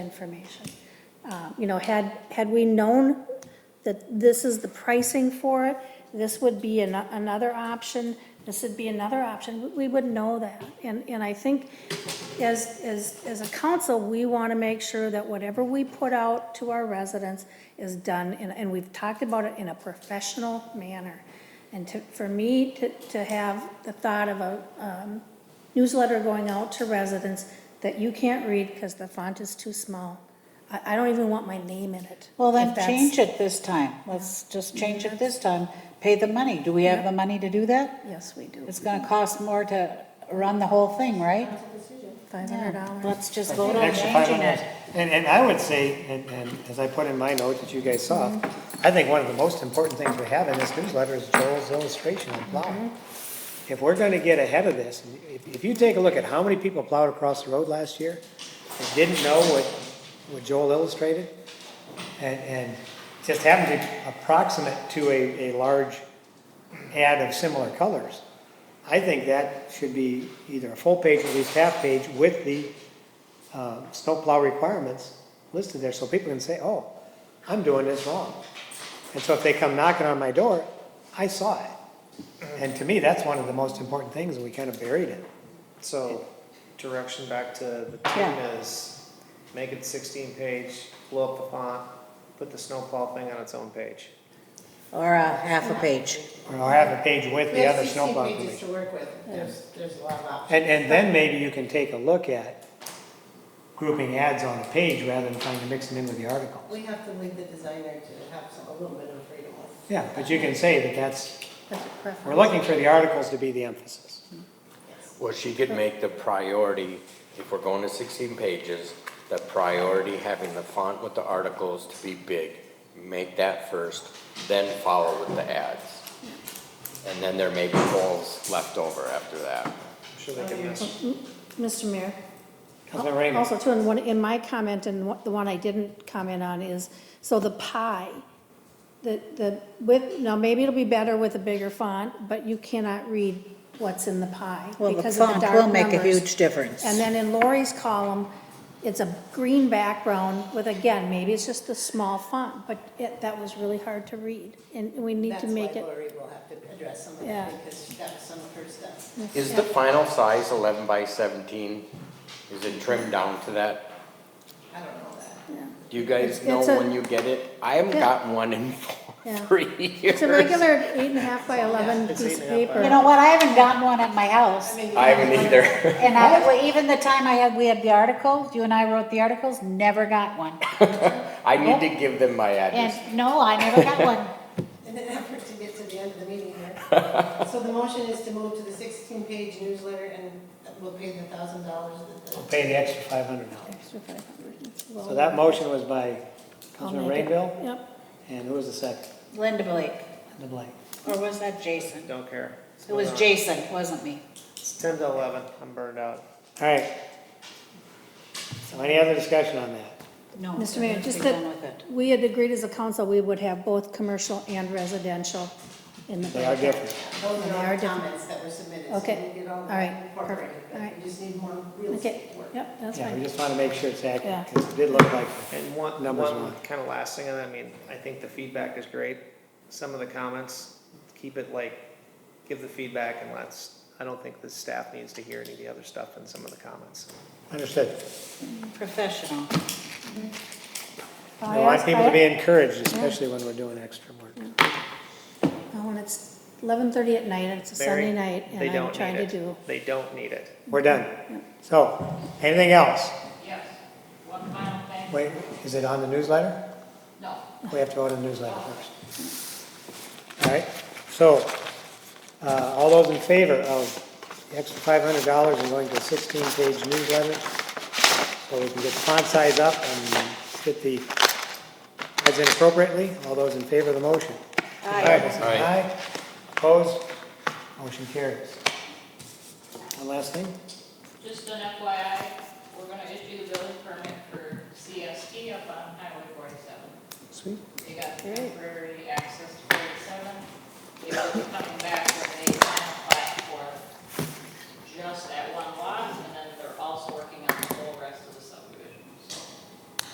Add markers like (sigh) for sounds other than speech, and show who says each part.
Speaker 1: information. Uh, You know, had, had we known that this is the pricing for it, this would be an- another option, this would be another option, we would know that. And, and I think as, as, as a council, we want to make sure that whatever we put out to our residents is done, and, and we've talked about it in a professional manner. And to, for me to, to have the thought of a um, newsletter going out to residents that you can't read because the font is too small, I, I don't even want my name in it.
Speaker 2: Well, then
Speaker 1: if that's-
Speaker 2: change it this time. Let's just change it this time. Pay the money. Do we have the money to do that?
Speaker 1: Yes, we do,
Speaker 2: It's gonna cost more to run the whole thing, right?
Speaker 1: five hundred
Speaker 2: Yeah.
Speaker 1: dollars.
Speaker 2: Let's just vote on
Speaker 3: Extra five
Speaker 2: changing
Speaker 3: hundred.
Speaker 2: it.
Speaker 3: And, and I would say, and, and as I put in my note that you guys saw, I think one of the most important things we have in this newsletter is Joel's illustration of plowing. If we're gonna get ahead of this, if, if you take a look at how many people plowed across the road last year and didn't know what, what Joel illustrated, and, and just happened to be approximate to a, a large ad of similar colors, I think that should be either a full page or at least half page with the uh, snowplow requirements listed there, so people can say, oh, I'm doing this wrong. And so if they come knocking on my door, I saw it. And to me, that's one of the most important things, and we kind of buried it.
Speaker 4: So, direction back to the team
Speaker 2: Yeah.
Speaker 4: is, make it sixteen page, blow up the font, put the snowplow thing on its own page.
Speaker 2: Or a half a page.
Speaker 3: Or I'll have a page with the other
Speaker 5: There's 16
Speaker 3: snowplow
Speaker 5: pages
Speaker 3: information.
Speaker 5: to work with, there's, there's a lot of options.
Speaker 3: And, and then maybe you can take a look at grouping ads on a page rather than trying to mix them in with the article.
Speaker 5: We have to leave the designer to have some, a little bit of freedom with.
Speaker 3: Yeah, but you can say that that's,
Speaker 1: That's a preference.
Speaker 3: we're looking for the articles to be the emphasis.
Speaker 6: Well, she could make the priority, if we're going to 16 pages, the priority having the font with the articles to be big. Make that first, then follow with the ads. And then there may be holes left over after that.
Speaker 4: I'm sure they can miss.
Speaker 1: Mr. Mayor?
Speaker 3: Councilmember Raymond.
Speaker 1: Also, too, in one, in my comment, and what- the one I didn't comment on is, so the pie, the, the, with, now, maybe it'll be better with a bigger font, but you cannot read what's in the pie.
Speaker 2: Well, the
Speaker 1: because of
Speaker 2: font
Speaker 1: dark
Speaker 2: will make a
Speaker 1: numbers.
Speaker 2: huge difference.
Speaker 1: And then in Lori's column, it's a green background with, again, maybe it's just the small font, but it, that was really hard to read, and we need
Speaker 5: That's
Speaker 1: to
Speaker 5: why
Speaker 1: make it.
Speaker 5: Lori will have to address some of
Speaker 1: Yeah.
Speaker 5: that, because that was some of her stuff.
Speaker 6: Is the final size 11 by 17? Is it trimmed down to that?
Speaker 5: I don't know that.
Speaker 6: Do you guys
Speaker 1: It's-
Speaker 6: know
Speaker 1: it's a-
Speaker 6: when you get it? I haven't
Speaker 1: Yeah.
Speaker 6: gotten one in (laughs)
Speaker 1: Yeah.
Speaker 6: three years.
Speaker 1: It's a
Speaker 4: (laughs)
Speaker 1: regular eight and a half by eleven
Speaker 4: It's eight
Speaker 1: piece of
Speaker 4: and a half by
Speaker 1: paper.
Speaker 2: You know what? I haven't gotten one at my house.
Speaker 5: mean,
Speaker 6: I haven't either. (laughs)
Speaker 2: And I, well, even the time I had, we had the article, you and I wrote the articles, never got one.
Speaker 6: I need to give them my address.
Speaker 2: And no, I never got one.
Speaker 5: In an effort to get to the end of the meeting
Speaker 3: (laughs)
Speaker 5: here. So the motion is to move to the sixteen-page newsletter, and we'll pay the thousand dollars that the.
Speaker 3: Pay the extra five hundred dollars.
Speaker 1: Extra 500.
Speaker 3: So that motion was by
Speaker 1: I'll
Speaker 3: Councilmember
Speaker 1: make it.
Speaker 3: Rainville,
Speaker 1: Yep.
Speaker 3: and who was the second?
Speaker 2: Linda Blake,
Speaker 3: The blank.
Speaker 2: or was that Jason?
Speaker 4: Don't care.
Speaker 2: It was Jason, it wasn't me.
Speaker 4: It's ten to eleven, I'm burned out.
Speaker 3: All right. So any other discussion on that?
Speaker 2: No.
Speaker 1: Mr. Mayor,
Speaker 2: let's
Speaker 1: just
Speaker 2: be
Speaker 1: that
Speaker 2: done with it.
Speaker 1: we had agreed as a council, we would have both commercial and residential in the.
Speaker 3: They are different.
Speaker 5: Those
Speaker 1: They
Speaker 5: are all
Speaker 1: are
Speaker 5: the
Speaker 1: different.
Speaker 5: comments that were submitted, so
Speaker 1: Okay.
Speaker 5: we'll get all
Speaker 1: All
Speaker 5: that
Speaker 1: right.
Speaker 5: incorporated.
Speaker 1: Perfect. All right.
Speaker 5: We just need more
Speaker 1: Okay,
Speaker 5: realistic work.
Speaker 1: yep, that's
Speaker 3: Yeah, we
Speaker 1: fine.
Speaker 3: just want to make sure it's accurate,
Speaker 1: Yeah.
Speaker 3: because it did look like,
Speaker 4: And one,
Speaker 3: Numbers
Speaker 4: one
Speaker 3: one.
Speaker 4: kind of last thing, and I mean, I think the feedback is great. Some of the comments, keep it like, give the feedback and let's, I don't think the staff needs to hear any of the other stuff in some of the comments.
Speaker 3: understood.
Speaker 2: Professional.
Speaker 3: We want people to be encouraged, especially when we're doing extra work.
Speaker 1: Oh, and it's eleven thirty at night, and it's a Sunday
Speaker 4: Very-
Speaker 1: night,
Speaker 4: they
Speaker 1: and I'm
Speaker 4: don't
Speaker 1: trying
Speaker 4: need
Speaker 1: to
Speaker 4: it.
Speaker 1: do.
Speaker 4: They don't need it.
Speaker 3: We're done. So, anything else?
Speaker 7: Yes, one final thing,
Speaker 3: Wait, is it on the newsletter?
Speaker 7: no,
Speaker 3: We have to vote on the newsletter first. All right, so, uh, all those in favor of the extra five hundred dollars and going to a sixteen-page newsletter, so we can get the font size up and fit the heads in appropriately, all those in favor of the motion?
Speaker 6: Aye.
Speaker 3: Aye, opposed, motion carries. One last thing?
Speaker 7: just an FYI, we're gonna issue the building permit for CST up on Highway forty-seven.
Speaker 3: Sweet.
Speaker 7: They got the temporary